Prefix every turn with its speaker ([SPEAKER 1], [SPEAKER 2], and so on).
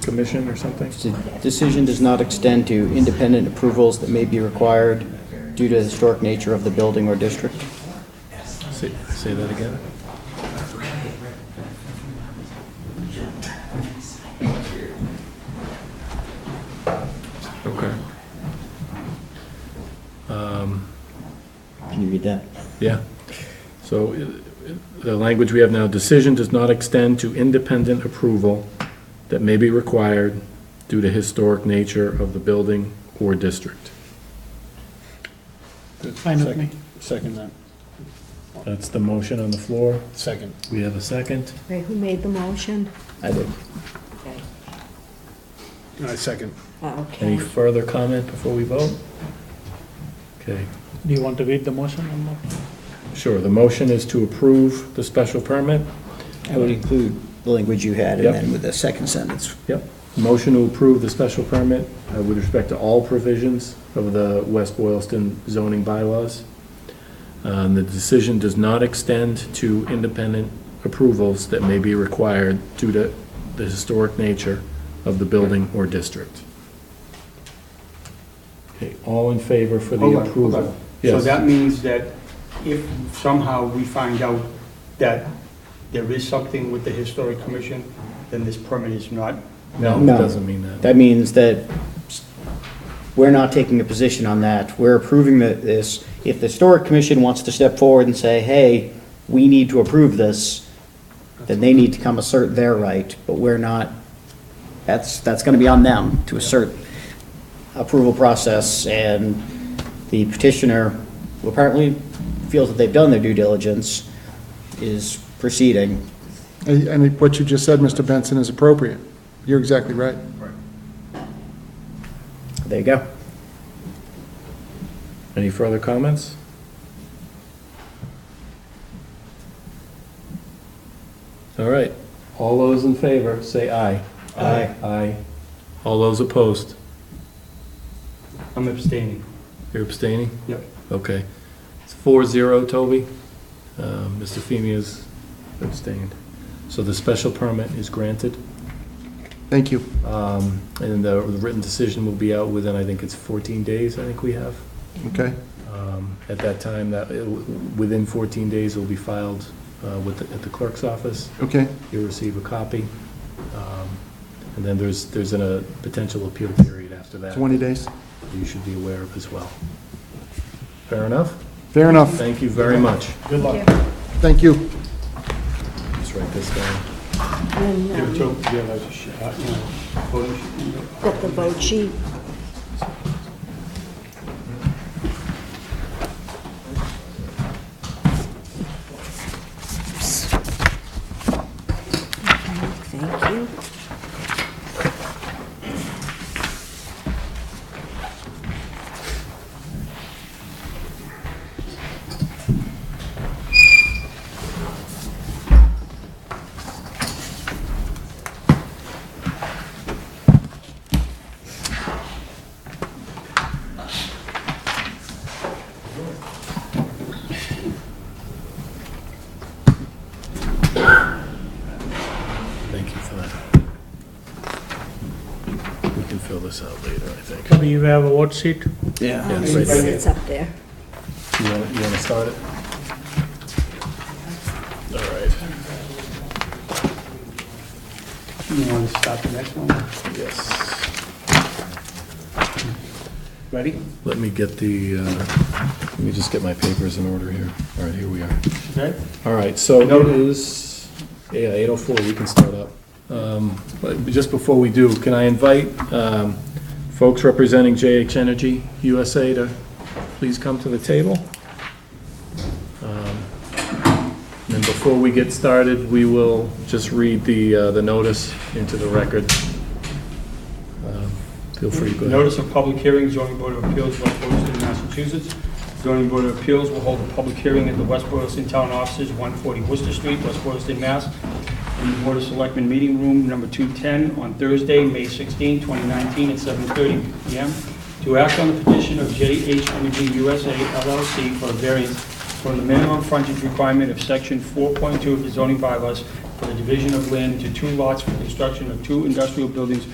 [SPEAKER 1] submission or something?
[SPEAKER 2] The decision does not extend to independent approvals that may be required due to the historic nature of the building or district.
[SPEAKER 3] Say, say that again? Okay. Um,
[SPEAKER 4] Can you read that?
[SPEAKER 3] Yeah. So i- i- the language we have now, decision does not extend to independent approval that may be required due to historic nature of the building or district.
[SPEAKER 5] Fine with me.
[SPEAKER 4] Second that.
[SPEAKER 3] That's the motion on the floor.
[SPEAKER 4] Second.
[SPEAKER 3] We have a second.
[SPEAKER 6] Wait, who made the motion?
[SPEAKER 2] I did.
[SPEAKER 4] I second.
[SPEAKER 6] Oh,
[SPEAKER 3] Any
[SPEAKER 6] Okay.
[SPEAKER 3] further comment before we vote? Okay.
[SPEAKER 5] Do you want to read the motion or not?
[SPEAKER 3] Sure, the motion is to approve the special permit.
[SPEAKER 2] I would include the language you had and
[SPEAKER 3] Yep.
[SPEAKER 2] then with the second sentence.
[SPEAKER 3] Yep. Motion to approve the special permit uh, with respect to all provisions of the West Boylston zoning bylaws. Um, The decision does not extend to independent approvals that may be required due to the historic nature of the building or district. Okay, all in favor for the
[SPEAKER 7] Hold on, hold
[SPEAKER 3] approval?
[SPEAKER 7] on. Oh, So
[SPEAKER 3] Yes.
[SPEAKER 7] that means that if somehow we find out that there is something with the historic commission, then this permit is not,
[SPEAKER 3] No, it
[SPEAKER 2] No.
[SPEAKER 3] doesn't mean that.
[SPEAKER 2] That means that we're not taking a position on that. We're approving that this, if the historic commission wants to step forward and say, hey, we need to approve this, then they need to come assert their right, but we're not, that's, that's gonna be on them to assert approval process, and the petitioner, who apparently feels that they've done their due diligence, is proceeding.
[SPEAKER 8] And and what you just said, Mr. Benson, is appropriate. You're exactly right.
[SPEAKER 2] There you go.
[SPEAKER 3] Any further comments? All right, all those in favor, say aye.
[SPEAKER 2] Aye.
[SPEAKER 3] Aye. All those opposed?
[SPEAKER 7] I'm abstaining.
[SPEAKER 3] You're abstaining?
[SPEAKER 7] Yep.
[SPEAKER 3] Okay. It's four zero, Toby. Uh, Mr. Feeny is abstained. So the special permit is granted,
[SPEAKER 8] Thank you.
[SPEAKER 3] um, and the written decision will be out within, I think it's 14 days, I think we have.
[SPEAKER 8] Okay.
[SPEAKER 3] Um, At that time, that, it w- within 14 days, it will be filed uh, with, the- at the clerk's office.
[SPEAKER 8] Okay.
[SPEAKER 3] You'll receive a copy. Um, And then there's, there's an, a potential appeal period after that.
[SPEAKER 8] 20 days.
[SPEAKER 3] You should be aware of as well. Fair enough?
[SPEAKER 8] Fair enough.
[SPEAKER 3] Thank you very much.
[SPEAKER 7] Good luck.
[SPEAKER 8] Thank you.
[SPEAKER 3] Just write this down.
[SPEAKER 6] And,
[SPEAKER 7] Give
[SPEAKER 6] um,
[SPEAKER 7] it to him. Yeah, that's a sh- uh, you know, photo shoot.
[SPEAKER 6] Got the vote sheet. Okay, Thank you.
[SPEAKER 3] Thank you for that. We can fill this out later, I think.
[SPEAKER 5] Do you have a vote sheet?
[SPEAKER 3] Yeah,
[SPEAKER 6] Um,
[SPEAKER 3] it's right there.
[SPEAKER 6] It's up there.
[SPEAKER 3] You want, you want to start it? All right,
[SPEAKER 7] You want to start the next one?
[SPEAKER 3] yes.
[SPEAKER 7] Ready?
[SPEAKER 3] Let me get the, uh, let me just get my papers in order here. All right, here we are.
[SPEAKER 7] Okay.
[SPEAKER 3] All right, so it is, yeah, 8:04, we can start up. Um, But just before we do, can I invite um, folks representing JH Energy USA to please come to the table? Um, And before we get started, we will just read the, uh, the notice into the record. Um, Feel free to go ahead.
[SPEAKER 7] Notice of public hearing, zoning board of appeals, West Boylston, Massachusetts. Zoning board of appeals will hold a public hearing at the West Boylston Town Offices, 140 Worcester Street, West Boylston, Mass. In the Board of Selectmen Meeting Room, number 210, on Thursday, May 16, 2019, at 7:30 PM, to act on the petition of JH Energy USA LLC for a variance from the minimum frontage requirement of section 4.2 of the zoning bylaws for the division of land to two lots for construction of two industrial buildings